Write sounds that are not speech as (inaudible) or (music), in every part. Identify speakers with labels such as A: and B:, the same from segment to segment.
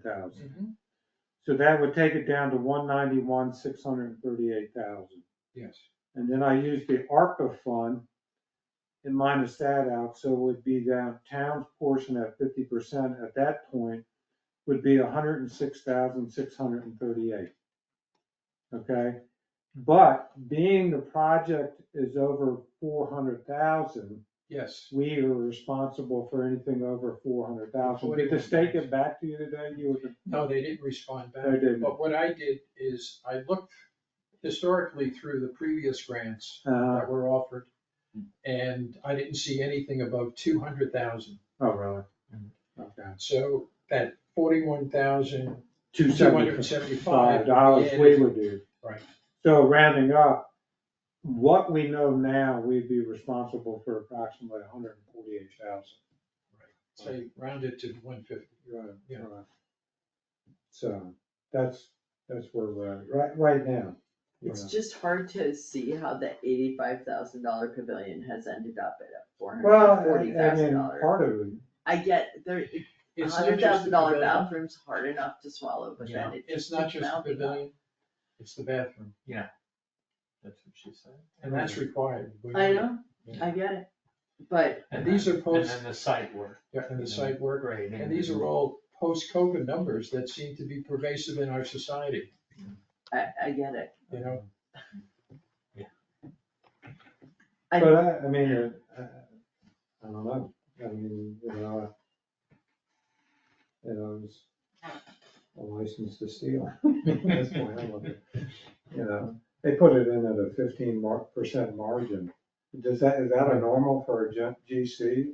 A: thousand.
B: Mm-hmm.
A: So that would take it down to one ninety-one, six hundred and thirty-eight thousand.
C: Yes.
A: And then I use the ARPA fund and minus that out, so it would be down, town's portion at fifty percent at that point would be hundred and six thousand, six hundred and thirty-eight. Okay, but being the project is over four hundred thousand,
C: Yes,
A: we are responsible for anything over four hundred thousand. Did the state get back to you today? You were,
C: no, they didn't respond back.
A: I didn't.
C: But what I did is I looked historically through the previous grants
A: Uh,
C: that were offered. And I didn't see anything above two hundred thousand.
A: oh, really?
C: Mhm.
A: Okay.
C: So that forty-one thousand
A: Two seventy-five
C: $275.
A: dollars we would do.
C: Right.
A: So rounding up, what we know now, we'd be responsible for approximately hundred and forty-eight thousand.
C: Say round it to one fifty.
A: Right,
C: Yeah.
A: right. So that's, that's where we're at, right, right now.
B: It's just hard to see how the eighty-five thousand dollar pavilion has ended up at a four hundred
A: Well,
B: and
A: I I
B: forty thousand
A: mean,
B: dollar.
A: part of it,
B: I get, there, a
C: It's not
B: hundred
C: just the
B: thousand dollar
C: pavilion.
B: bathroom's hard enough to swallow, but
D: Yeah.
B: then it
C: It's
B: just
C: not
B: keeps
C: just the
B: mounting up.
C: pavilion, it's the bathroom,
D: That's what she said.
C: and that's required.
B: Mm-hmm. I know, I get it, but
C: And these are
D: And
C: post,
D: then the site work.
C: yeah, and the site work,
D: Right.
C: and these are all post-COVID numbers that seem to be pervasive in our society,
B: I, I get it.
C: you know?
B: I-
A: but I, I mean, uh, I, I don't know, I mean, you know, I- you know, it's a license to steal. (laughs) That's the way I look at it. You know, they put it in at a fifteen percent margin. Does that, is that a normal for a gen- GC?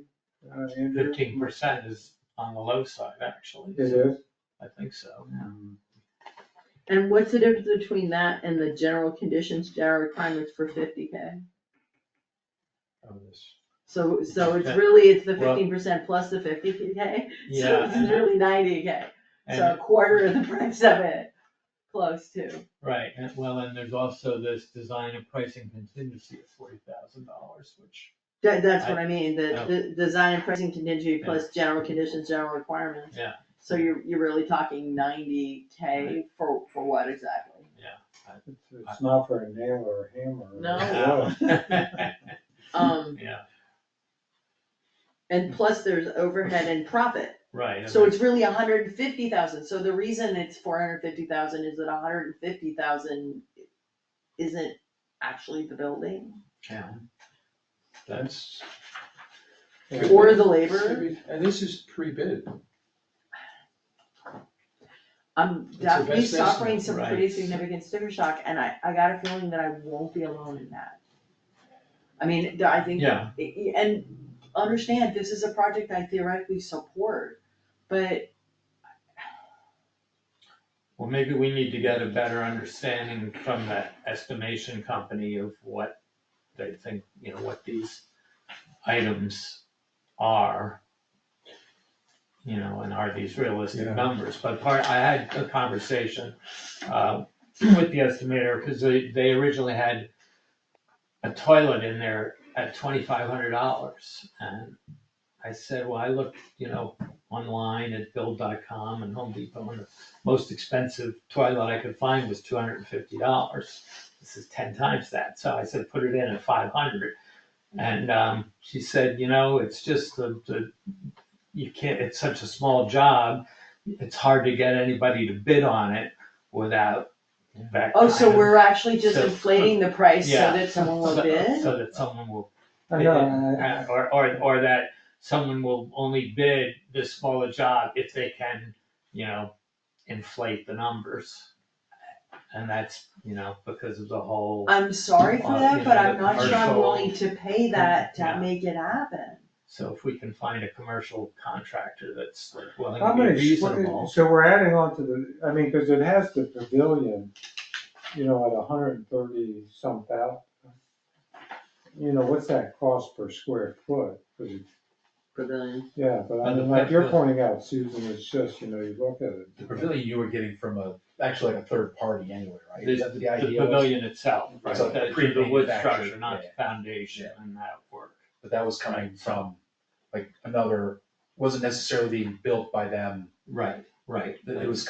A: uh, Andrew?
D: Fifteen percent is on the low side, actually.
A: It is?
D: I think so.
B: And what's the difference between that and the general conditions, general requirements for fifty K?
C: on this.
B: So, so it's
D: Okay.
B: really, it's the
D: Well-
B: fifteen percent plus the fifty K, so
D: Yeah,
B: it's
D: and-
B: nearly ninety K, so a
D: and,
B: quarter of the price of it, close to.
D: right, and well, and there's also this design and pricing contingency of forty thousand dollars, which,
B: That, that's what I mean,
D: Oh.
B: the, the design and pricing contingency plus general conditions, general requirements.
D: Yeah.
B: So you're, you're really talking ninety K for, for what exactly?
A: It's it's not for a nail or a hammer. or a
B: No.
A: nail.
B: Um,
D: (laughs) yeah,
B: and plus there's overhead and profit,
D: right. and
B: so it's really a hundred and fifty thousand, so the reason it's four hundred and fifty thousand is that a hundred and fifty thousand isn't actually the building,
D: Yeah. That's,
B: or the labor,
C: And this is pre-bid,
B: I'm
C: the
B: definitely
C: best estimate,
B: suffering some pretty
D: right.
B: significant sticker shock, and I, I got a feeling that I won't be alone in that. I mean, I think
D: yeah,
B: and understand, this is a project I theoretically support, but
D: well, maybe we need to get a better understanding from that estimation company of what they think, you know, what these items are. You know, and are these realistic
C: Yeah.
D: numbers, but part, I had a conversation, uh, (clears throat) with the estimator, cause they, they originally had a toilet in there at twenty-five hundred dollars, and I said, well, I looked, you know, online at build.com and Home Depot, and the most expensive toilet I could find was two hundred and fifty dollars. This is ten times that, so I said, put it in at five hundred. And, um, she said, you know, it's just the, the, you can't, it's such a small job, it's hard to get anybody to bid on it without that
B: Oh, so
D: kind of-
B: we're actually just
D: So- uh,
B: inflating the price so
D: Yeah.
B: that someone will
D: so- uh,
B: bid?
D: So that someone will
A: I know, I- I-
D: or, or, or that someone will only bid this smaller job if they can, you know, inflate the numbers. And that's, you know, because of the whole,
B: I'm sorry for
D: Uh,
B: that,
D: you
B: but
D: know,
B: I'm
D: the
B: not sure I'm
D: commercial-
B: willing to pay that to
D: Yeah.
B: make it happen.
D: so if we can find a commercial contractor that's like willing
A: How
D: to be
A: many, squ-
D: reasonable.
A: so we're adding on to the, I mean, cause it has the pavilion, you know, at hundred and thirty some thousand. You know, what's that cost per square foot? 'Cause it-
B: Pavilion.
A: Yeah, but I
E: And the
A: mean, like you're
E: pavilion.
A: pointing out, Susan, it's just, you know, you look at it.
E: The pavilion you were getting from a, actually like a third party anyway, right?
D: The
E: Is that the
D: the
E: idea? was-
D: pavilion itself, right,
E: It's a
D: the, the wood
E: pre-manufactured,
D: structure, not
E: yeah.
D: the foundation and that work.
E: But that was coming from like another, wasn't necessarily being built by them
D: Right. right,
E: That it was